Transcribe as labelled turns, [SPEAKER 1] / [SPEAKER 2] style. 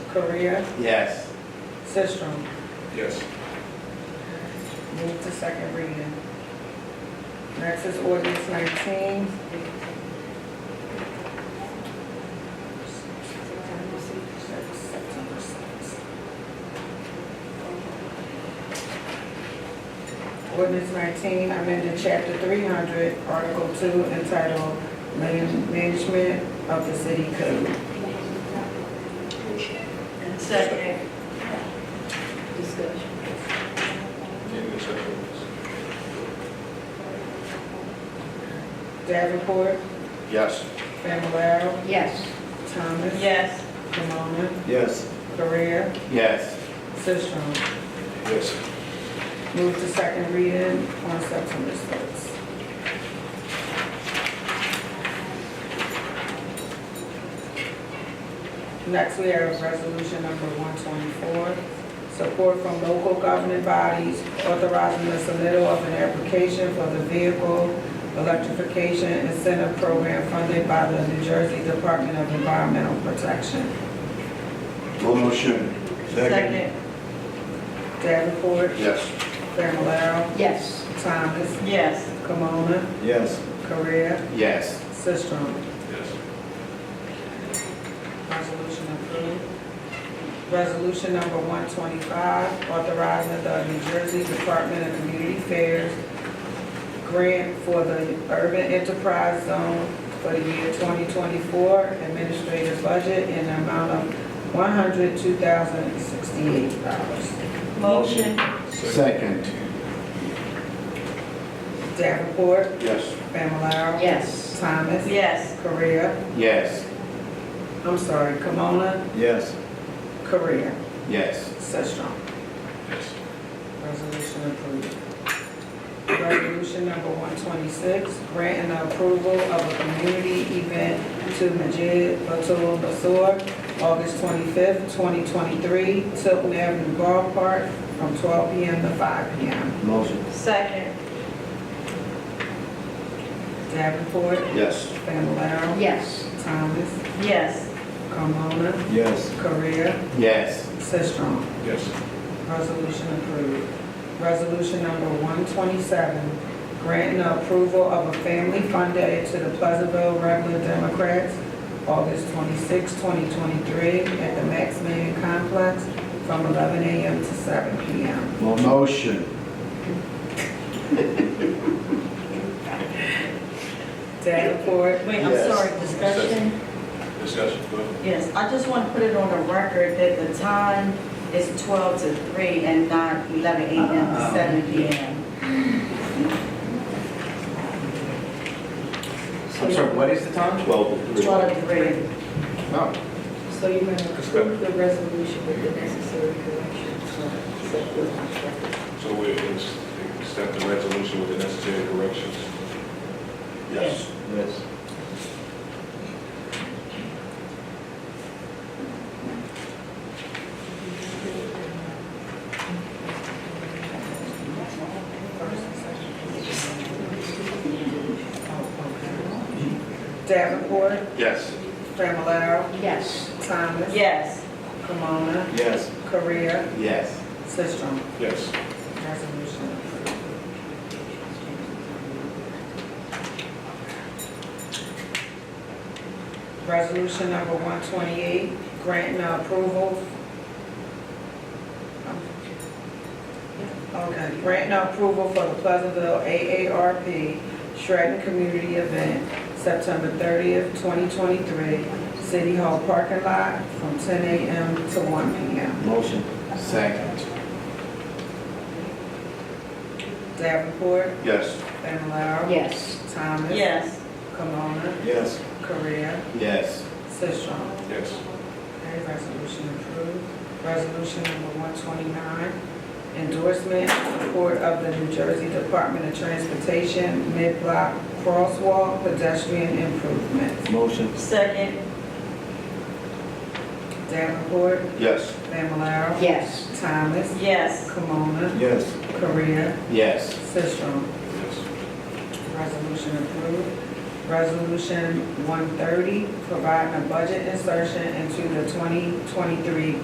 [SPEAKER 1] Korea,
[SPEAKER 2] Yes.
[SPEAKER 1] Sistrum.
[SPEAKER 3] Yes.
[SPEAKER 1] Move to second reading. Next is ordinance nineteen. Ordinance nineteen, amended chapter three hundred, article two, entitled Man- Management of the City Code.
[SPEAKER 3] Motion.
[SPEAKER 4] And second. Discussion.
[SPEAKER 3] Any discussion?
[SPEAKER 1] Davenport,
[SPEAKER 2] Yes.
[SPEAKER 1] Fablelaro,
[SPEAKER 4] Yes.
[SPEAKER 1] Thomas.
[SPEAKER 4] Yes.
[SPEAKER 1] Camona,
[SPEAKER 2] Yes.
[SPEAKER 1] Correa,
[SPEAKER 2] Yes.
[SPEAKER 1] Sisram.
[SPEAKER 3] Yes.
[SPEAKER 1] Move to second reading on September sixth. Next, we have resolution number one twenty-four, support from local governing bodies authorizing the submittal of an application for the vehicle electrification incentive program funded by the New Jersey Department of Environmental Protection.
[SPEAKER 2] Motion.
[SPEAKER 1] Davenport,
[SPEAKER 2] Yes.
[SPEAKER 1] Familar,
[SPEAKER 4] Yes.
[SPEAKER 1] Thomas,
[SPEAKER 4] Yes.
[SPEAKER 1] Camona,
[SPEAKER 2] Yes.
[SPEAKER 1] Correa,
[SPEAKER 2] Yes.
[SPEAKER 1] Sistrum.
[SPEAKER 3] Yes.
[SPEAKER 1] Resolution approved. Resolution number one twenty-five, authorizing the New Jersey Department of Community Affairs grant for the urban enterprise zone for the year twenty twenty-four administrative budget in the amount of one hundred two thousand sixty-eight dollars.
[SPEAKER 4] Motion.
[SPEAKER 2] Second.
[SPEAKER 1] Davenport,
[SPEAKER 2] Yes.
[SPEAKER 1] Familar,
[SPEAKER 4] Yes.
[SPEAKER 1] Thomas.
[SPEAKER 4] Yes.
[SPEAKER 1] Correa,
[SPEAKER 2] Yes.
[SPEAKER 1] I'm sorry, Kimona,
[SPEAKER 2] Yes.
[SPEAKER 1] Correa,
[SPEAKER 2] Yes.
[SPEAKER 1] Sesstrom.
[SPEAKER 3] Yes.
[SPEAKER 1] Resolution approved. Resolution number one twenty-six, granting the approval of a community event to Majid Batul Basur, August twenty-fifth, twenty twenty-three, Tilton Avenue Ballpark, from twelve P M. to five P M.
[SPEAKER 2] Motion.
[SPEAKER 4] Second.
[SPEAKER 1] Davenport,
[SPEAKER 2] Yes.
[SPEAKER 1] Familar,
[SPEAKER 4] Yes.
[SPEAKER 1] Thomas,
[SPEAKER 4] Yes.
[SPEAKER 1] Carmona,
[SPEAKER 2] Yes.
[SPEAKER 1] Korea,
[SPEAKER 2] Yes.
[SPEAKER 1] Sistrum.
[SPEAKER 3] Yes.
[SPEAKER 1] Resolution approved. Resolution number 127, granting the approval of a family fund day to the Pleasantville Regular Democrats, August 26, 2023, at the Maximilian Complex from 11 a.m. to 7 p.m.
[SPEAKER 2] Motion.
[SPEAKER 1] Davenport,
[SPEAKER 5] Wait, I'm
[SPEAKER 2] Yes.
[SPEAKER 5] sorry, discussion?
[SPEAKER 3] Discussion, go ahead.
[SPEAKER 5] Yes, I just want to put it on the record that the time is 12 to 3 and not 11 a.m. to 7 p.m.
[SPEAKER 2] I'm sorry, what is the time? Twelve. Oh.
[SPEAKER 5] 12 to 3.
[SPEAKER 2] No.
[SPEAKER 4] So you're going to approve the resolution with the necessary corrections.
[SPEAKER 3] So we ex- accept the resolution with the necessary corrections.
[SPEAKER 2] Yes. Yes.
[SPEAKER 1] Davenport,
[SPEAKER 2] Yes.
[SPEAKER 1] Familar,
[SPEAKER 4] Yes.
[SPEAKER 1] Thomas,
[SPEAKER 5] Yes,
[SPEAKER 1] Camona,
[SPEAKER 2] Yes.
[SPEAKER 1] Korea,
[SPEAKER 2] Yes.
[SPEAKER 1] Sistrum.
[SPEAKER 3] Yes.
[SPEAKER 1] Resolution approved. Resolution number 128, granting the approval. Okay, granting the approval for the Pleasantville AARP Shredding Community Event, September 30th, 2023, City Hall parking lot from 10 a.m. to 1 p.m.
[SPEAKER 2] Motion. Second.
[SPEAKER 1] Davenport,
[SPEAKER 2] Yes.
[SPEAKER 1] Familar.
[SPEAKER 4] Yes.
[SPEAKER 1] Thomas.
[SPEAKER 5] yes,
[SPEAKER 1] Kimona,
[SPEAKER 2] Yes.
[SPEAKER 1] Korea,
[SPEAKER 2] Yes.
[SPEAKER 1] Sisram.
[SPEAKER 3] Yes.
[SPEAKER 1] Okay, resolution approved. Resolution number one twenty-nine, endorsement and support of the New Jersey Department of Transportation mid-block crosswalk pedestrian improvements.
[SPEAKER 2] Motion.
[SPEAKER 5] second,
[SPEAKER 1] Davenport,
[SPEAKER 2] Yes.
[SPEAKER 1] Familar.
[SPEAKER 4] Yes.
[SPEAKER 1] Thomas,
[SPEAKER 5] yes,
[SPEAKER 1] Kimona,
[SPEAKER 2] Yes.
[SPEAKER 1] Korea,
[SPEAKER 2] Yes.
[SPEAKER 1] Sisram.
[SPEAKER 3] Yes.
[SPEAKER 1] Resolution approved. Resolution one thirty, providing a budget insertion into the twenty twenty-three